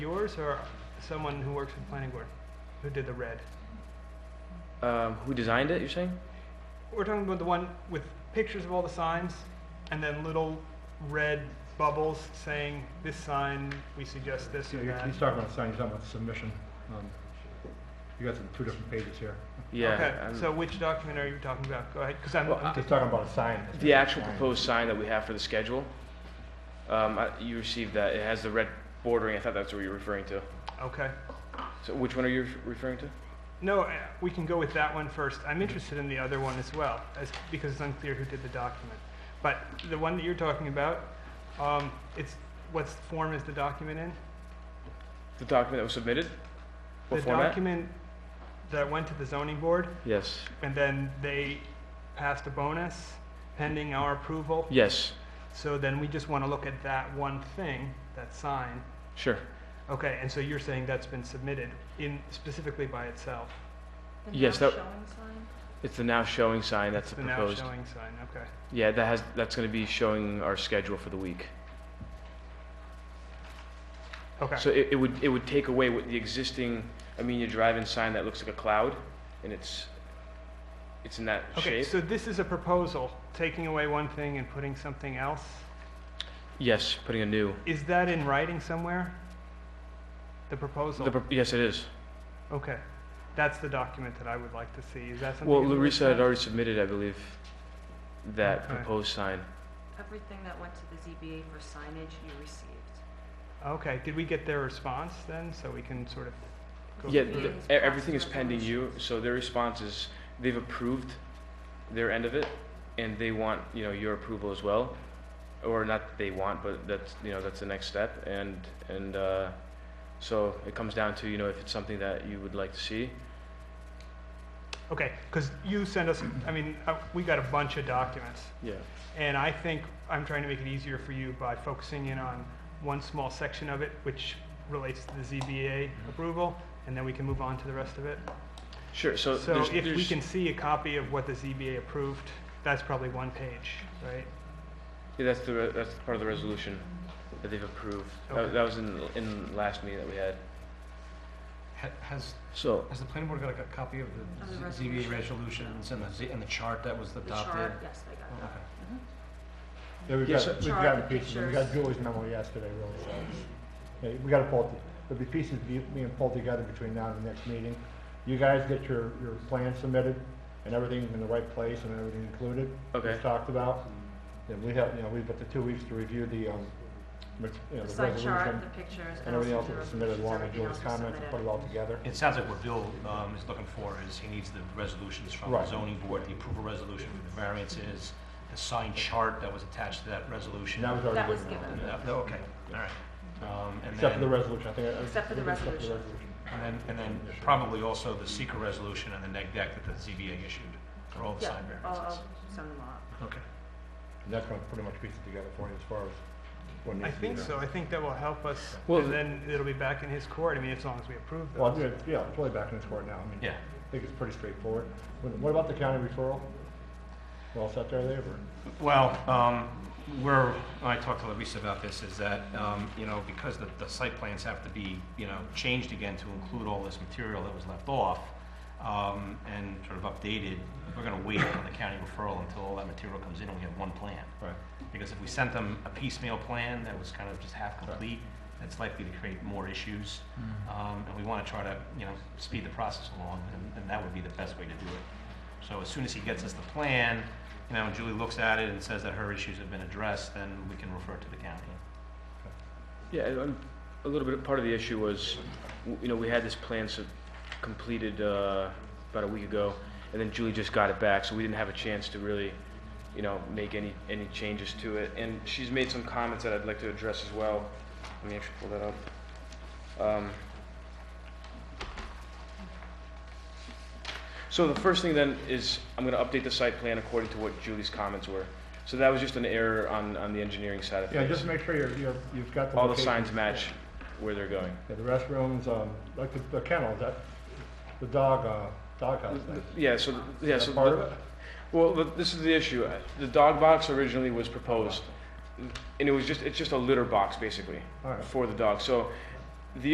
Yours or someone who works for the planning board who did the red? Um, who designed it? You're saying? We're talking about the one with pictures of all the signs and then little red bubbles saying this sign, we suggest this Yeah, or you're- that. He's talking about signing, he's talking about submission. um, You got some, two different pages here. Yeah. um, I'm- Okay, so which document are you talking about? Go ahead, because I'm, Well, I'm- He's talking about a sign. the actual Sign. proposed sign that we have for the schedule. Um, I, you received that. It has the red bordering. I thought that's what you were referring to. okay. So which one are you referring to? No, uh, we can go with that one first. I'm interested in the other one as well, as, because it's unclear who did the document. But the one that you're talking about, um, it's, what's form is the document in? The document that was submitted. What The format? document that went to the zoning board, Yes. and then they passed a bonus pending our approval. Yes. So then we just want to look at that one thing, that sign. Sure. Okay, and so you're saying that's been submitted in, specifically by itself? The Yes, now that- showing sign? It's the now showing sign. That's It's the The now proposed. showing sign, okay. Yeah, that has. That's going to be showing our schedule for the week. Okay. So it, it would it would take away what the existing Amenia Drive-in sign that looks like a cloud, and it's it's in that Okay, shape. so this is a proposal, taking away one thing and putting something else. yes, putting a new. Is that in writing somewhere? The proposal? The, pro- yes, it is. Okay. That's the document that I would like to see. Is that something? Well, in the Larissa website? had already submitted, I believe, that Okay. proposed sign. Everything that went to the ZBA for signage you received. Okay, did we get their response then, so we can sort of go? Yeah, through the- th- it? Meetings, e- everything is past pending you, so their response is, they've approved their end of it, and they want, you know, your approval as well, or not that they want, but that's, you know, that's the next step, and, and, uh, so it comes down to, you know, if it's something that you would like to see. Okay, because you send us, I mean, uh, we got a bunch of documents. Yeah. And I think I'm trying to make it easier for you by focusing in on one small section of it, which relates to the ZBA Mm-hmm. approval, and then we can move on to the rest of it. Sure, so So Uh, there's, if we there's, can see a copy of what the ZBA approved, that's probably one page, right? yeah, that's the, re- that's part of the resolution that they've approved. That, Okay. that was in, in last meeting that we had. Ha- Has, So, has the planning board got a co- copy of Of the the Z- ZBA resolution. resolutions and the, Z- and the chart that was The chart, adopted? yes, they got Oh, that. okay. Yeah, we've Yeah, got, so- we've Chart, gotten pieces, we got pictures. Julie's memo yesterday, really, so, it's- yeah, we gotta pull, it. there'll be pieces be- being pulled together between now and the next meeting. You guys get your, your plan submitted, and everything in the right place, and everything included. Okay. As talked about, and we have, you know, we've got the two weeks to review the, um, ma- you know, The the sign chart, resolution, the pictures. and everything else also that was the submitted resolutions, along with everything Julie's else was comments, and put it submitted. all together. It sounds like what Bill um, is looking for is he needs the resolutions from the Right. zoning board, the approval resolution for the variances, the signed chart that was attached to that resolution. And that was That already was written. given. Yeah, no, Okay, all right. Um, And Except for the then, resolution, I think. I- I- Except for the except resolution. and then, and then probably also the secret resolution and the neg deck that the ZBA issued for all the Yeah, sign I'll, variances. I'll send them all. out. Okay. And that's gonna pretty much piece it together for you as far as what I needs to be think done. so, I think that will help us, Well, and then it'll be back in his court, I mean, as long as we approve Well, those. I do- yeah, it's really back in the court now. I mean, Yeah. I think it's pretty straightforward. What what about the county referral? Well, set there, they were. Well, um, we're, I talked to Larissa about this, is that, um, you know, because the, the site plans have to be, you know, changed again to include all this material that was left off, um, and sort of updated, we're gonna wait on the county referral until all that material comes in and we have one plan. Right. Because if we sent them a piecemeal plan that was kind of just half complete, that's likely to create more issues. Um, and we wanna try to, you know, speed the process along, and, and that would be the best way to do it. So as soon as he gets us the plan, you know, and Julie looks at it and says that her issues have been addressed, then we can refer to the county. Yeah, and- and a little bit, part of the issue was, w- you know, we had this plan so- completed uh, about a week ago, and then Julie just got it back, so we didn't have a chance to really, you know, make any, any changes to it. And she's made some comments that I'd like to address as well. Let me actually pull that up. Um, So the first thing then is, I'm gonna update the site plan according to what Julie's comments were. So that was just an error on, on the engineering side of things. Yeah, just make sure you're, you're, you've got the. All the locations. signs match where they're going. Yeah, the restrooms, um, like the, the kennel, that, the dog, uh, doghouse thing. Yeah, so, yeah, Is so, that part of the- it? well, the- this is the issue. Uh, The dog box originally was proposed, and it was just, it's just a litter box, basically, Alright. for the dog. So